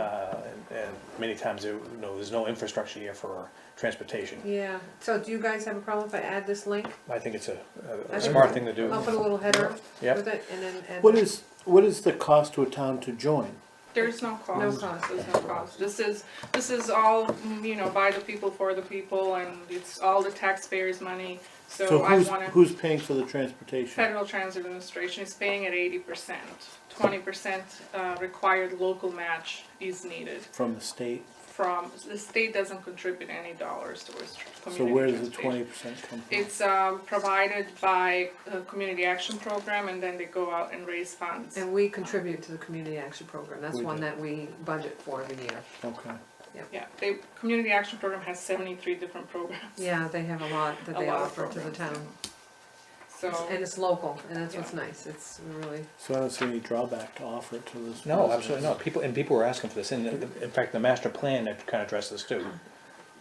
uh, many times, there- you know, there's no infrastructure here for transportation. Yeah, so do you guys have a problem if I add this link? I think it's a, a- a think smart thing to do. I'll put a little header Yep. with it and then, and. What is, what is the cost to a town to join? There's no cost. No cost. There's no cost. This is, this is all, mm, you know, by the people, for the people, and it's all the taxpayers' money. So So I who's, wanna, who's paying for the transportation? Federal Transit Administration is paying at eighty percent. Twenty percent, uh, required local match is needed From the state? from, the state doesn't contribute any dollars towards tr- So community where does the transportation. twenty percent come from? It's, um, provided by the Community Action Program, and then they go out and raise funds. And we contribute to the community action program, that's We one do. that we budget for every year. Okay. Yeah, the Community Action Program has seventy-three different programs. Yeah, they have a lot that A they lot of offer to the programs, town, So, and it's local, and that's what's nice, it's really, So I don't see any drawback to offer it to this. No, absolutely not. People, and people were asking for this, and the- in fact, the master plan that kind of addressed this too. Um,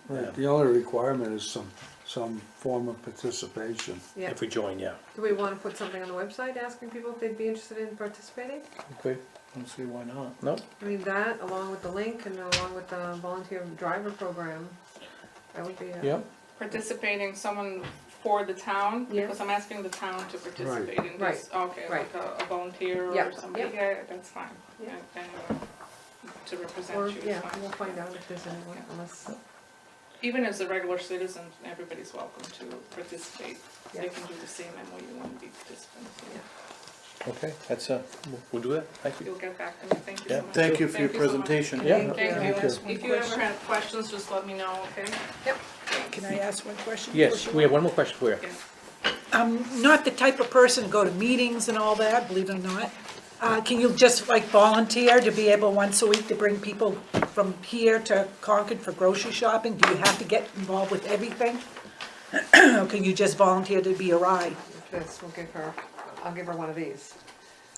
Right, the only requirement is some, some form of participation. yeah. If we join, yeah. Do we wanna put something on the website asking people if they'd be interested in participating? Okay. I don't see why not. No, I mean, that, along with the link and along with the volunteer driver program, that would be a. yeah, participating someone for the town, Yeah. because I'm asking the town to participate in this, okay, like right. a a volunteer Yeah, or somebody, yeah. yeah, that's fine. Yeah. And- and, uh, To represent Or, you yeah, is we'll fine. find out if there's anyone, Yeah. unless, Even as a regular citizen, everybody's welcome to participate. Yeah. They can do the same MOU and be participants. yeah. okay, that's, uh, we'll do that, thank you. You'll get back to me, thank you Yeah. so much. Thank you for your Thank you so much. presentation. Yeah. Thank Thank you, if you ever have questions, just let me know, okay? Can I ask one question? Yes, we have one more question for you. Yeah. I'm not the type of person to go to meetings and all that, believe it or not. Uh, Can you just like volunteer to be able once a week to bring people from here to Concord for grocery shopping? Do you have to get involved with everything? Or can you just volunteer to be a ride? this, we'll give her, I'll give her one of these.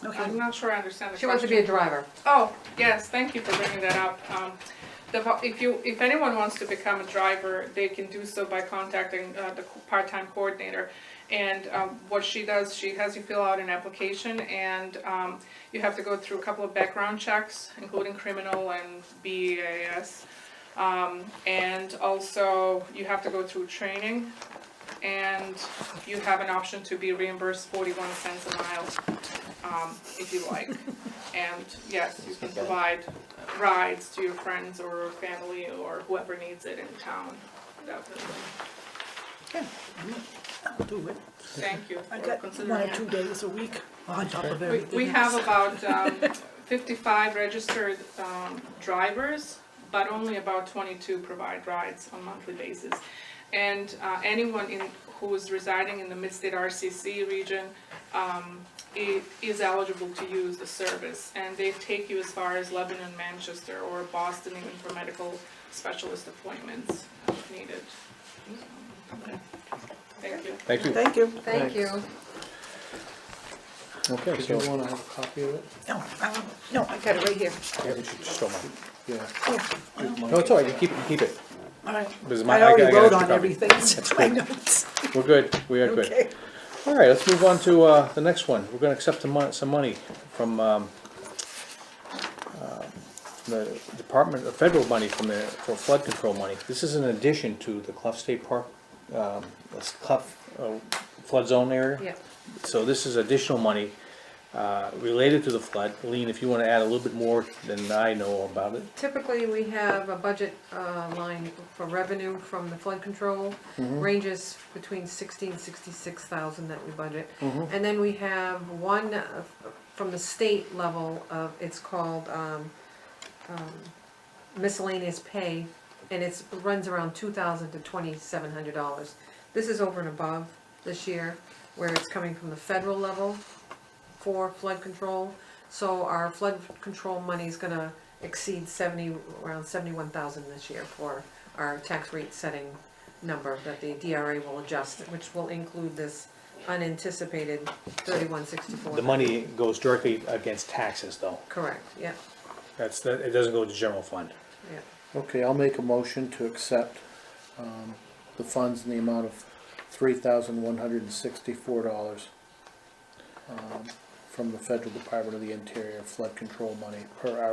I'm Okay, not sure I understand the question. She wants to be a driver. Oh, yes, thank you for bringing that up. Um, the vo- If you, if anyone wants to become a driver, they can do so by contacting uh, the co- part-time coordinator. And um, what she does, she has you fill out an application and um, you have to go through a couple of background checks, including criminal and BEAS. Um, And also, you have to go through training and you have an option to be reimbursed forty-one cents a mile um, if you like. And yes, you can provide rides to your friends or family or whoever needs it in town, definitely. I'll do it. Thank you I for got one considering it. or two days a week on top of We, everything. we have about um, fifty-five registered um, drivers, but only about twenty-two provide rides on monthly basis. And uh, anyone in, who is residing in the Mid-State RCC region um, i- is eligible to use the service. And they take you as far as Lebanon, Manchester, or Boston even for medical specialist appointments uh, if needed. Thank you. Thank you. Thank you. Thank you. Okay, Did you wanna have a copy of it? No, um, no, I got it right here. Yeah, we should just show mine. Yeah. No, it's all right, you keep, you keep it. All right. Because my- I I already gotta- I wrote gotta on copy. everything, it's in my notes. We're good, we are good. Okay. All right, let's move on to uh, the next one. We're gonna accept some mon- some money from um, uh, the Department of Federal money from the, for flood control money. This is in addition to the Clough State Park, um, this Clough uh, flood zone area. Yeah, So this is additional money uh, related to the flood. Lean, if you wanna add a little bit more than I know about it. typically we have a budget uh, line for revenue from the flood control, ranges between sixty and sixty-six thousand that we budget. And then we have one uh, from the state level of, it's called um, um, miscellaneous pay, and it's, runs around two thousand to twenty-seven hundred dollars. This is over and above this year, where it's coming from the federal level for flood control. So our flood control money is gonna exceed seventy, around seventy-one thousand this year for our tax rate setting number that the DRA will adjust, which will include this unanticipated thirty-one sixty-four. The money goes directly against taxes though. Correct, yeah, That's, the- it doesn't go to general fund. yeah. Okay, I'll make a motion to accept, um, the funds in the amount of three thousand one hundred and sixty-four dollars um, from the Federal Department of the Interior Flood Control money per our